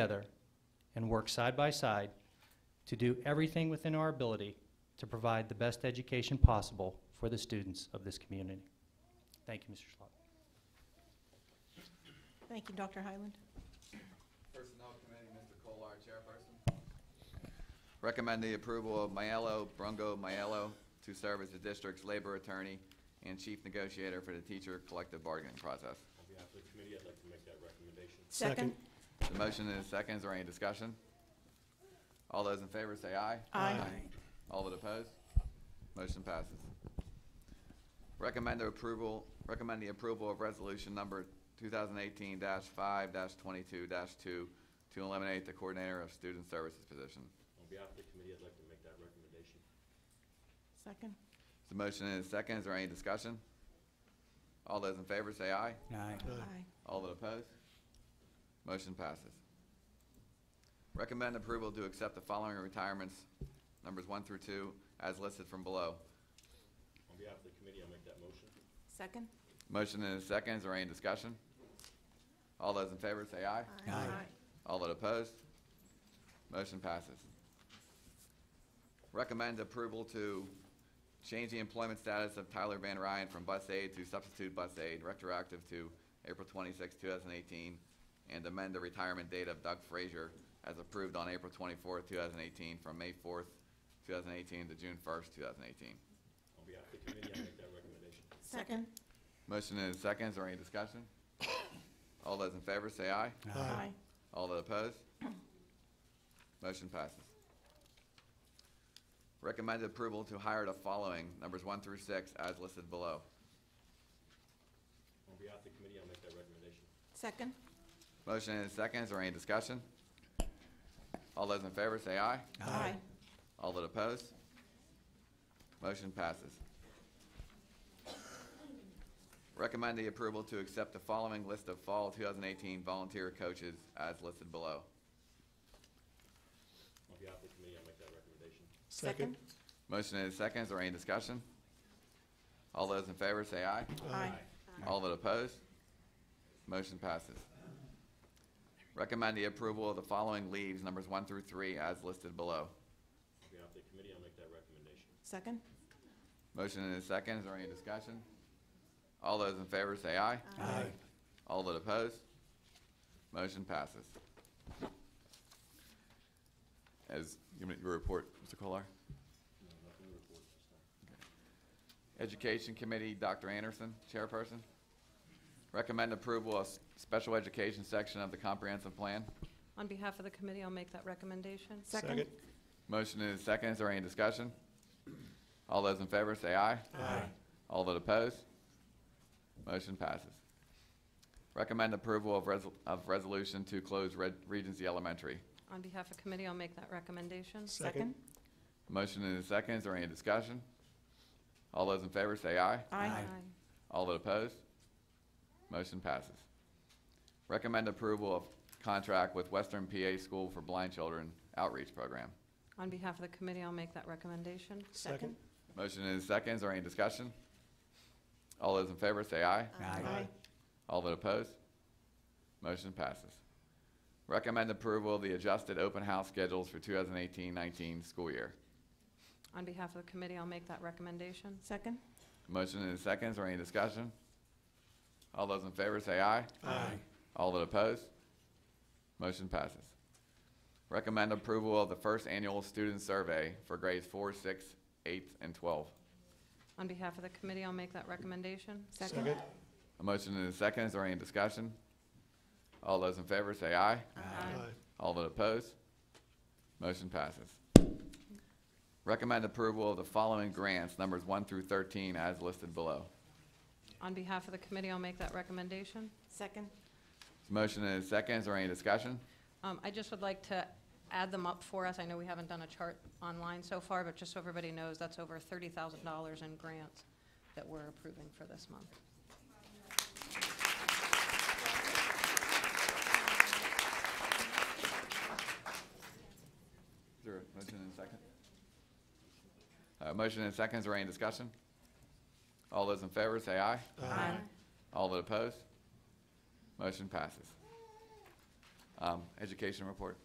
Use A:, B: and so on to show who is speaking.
A: together and work side by side to do everything within our ability to provide the best education possible for the students of this community. Thank you, Mr. Schlott.
B: Thank you, Dr. Highland.
C: Personnel Committee, Mr. Kolar, Chairperson. Recommend the approval of Mayello, Brungo Mayello, to serve as the district's labor attorney and chief negotiator for the teacher collective bargaining process.
D: On behalf of the committee, I'd like to make that recommendation.
B: Second.
C: The motion is second, is there any discussion? All those in favor say aye.
B: Aye.
C: All that oppose? Motion passes. Recommend the approval, recommend the approval of resolution number two thousand eighteen five twenty-two two to eliminate the coordinator of student services position.
D: On behalf of the committee, I'd like to make that recommendation.
B: Second.
C: The motion is second. Is there any discussion? All those in favor say aye.
A: Aye.
B: Aye.
C: All that oppose? Motion passes. Recommend approval to accept the following retirements, numbers one through two, as listed from below.
D: On behalf of the committee, I'll make that motion.
B: Second.
C: Motion is second. Is there any discussion? All those in favor say aye.
B: Aye.
C: All that opposed? Motion passes. Recommend approval to change the employment status of Tyler Van Ryan from bus aide to substitute bus aide, retroactive to April 26, 2018, and amend the retirement date of Doug Frazier as approved on April 24, 2018, from May 4, 2018 to June 1, 2018.
D: On behalf of the committee, I'll make that recommendation.
B: Second.
C: Motion is second. Is there any discussion? All those in favor say aye.
B: Aye.
C: All that opposed? Motion passes. Recommended approval to hire the following, numbers one through six, as listed below.
D: On behalf of the committee, I'll make that recommendation.
B: Second.
C: Motion and second, is there any discussion? All those in favor say aye.
B: Aye.
C: All that opposed? Motion passes. Recommend the approval to accept the following list of fall 2018 volunteer coaches as listed below.
D: On behalf of the committee, I'll make that recommendation.
B: Second.
C: Motion and second, is there any discussion? All those in favor say aye.
B: Aye.
C: All that opposed? Motion passes. Recommend the approval of the following leaves, numbers one through three, as listed below.
D: On behalf of the committee, I'll make that recommendation.
B: Second.
C: Motion and a second, is there any discussion? All those in favor say aye. Aye. All that opposed? Motion passes. As, give me your report, Mr. Kolar.
D: No, nothing to report at this time.
C: Education Committee, Dr. Anderson, Chairperson. Recommend approval of s- special education section of the comprehensive plan.
E: On behalf of the committee, I'll make that recommendation.
B: Second.
C: Motion is second. Is there any discussion? All those in favor say aye. Aye. All that oppose? Motion passes. Recommend approval of resol, of resolution to close Red, Regency Elementary.
E: On behalf of committee, I'll make that recommendation.
B: Second.
C: Motion is second. Is there any discussion? All those in favor say aye.
B: Aye.
C: All that oppose? Motion passes. Recommend approval of contract with Western PA School for Blind Children Outreach Program.
E: On behalf of the committee, I'll make that recommendation.
B: Second.
C: Motion is second. Is there any discussion? All those in favor say aye.
B: Aye.
C: All that oppose? Motion passes. Recommend approval of the adjusted open house schedules for 2018-19 school year.
E: On behalf of the committee, I'll make that recommendation.
B: Second.
C: Motion and a second, is there any discussion? All those in favor say aye. Aye. All that oppose? Motion passes. Recommend approval of the first annual student survey for grades 4, 6, 8, and 12.
E: On behalf of the committee, I'll make that recommendation.
B: Second.
C: A motion and a second, is there any discussion? All those in favor say aye.
E: Aye.
C: All that oppose? Motion passes. Recommend approval of the following grants, numbers 1 through 13, as listed below.
E: On behalf of the committee, I'll make that recommendation.
B: Second.
C: Motion and a second, is there any discussion?
E: Um, I just would like to add them up for us. I know we haven't done a chart online so far, but just so everybody knows, that's over thirty thousand dollars in grants that we're approving for this month.
C: Is there a motion and a second? Uh, motion and a second, is there any discussion? All those in favor say aye.
E: Aye.
C: All that oppose? Motion passes. Um, Education report.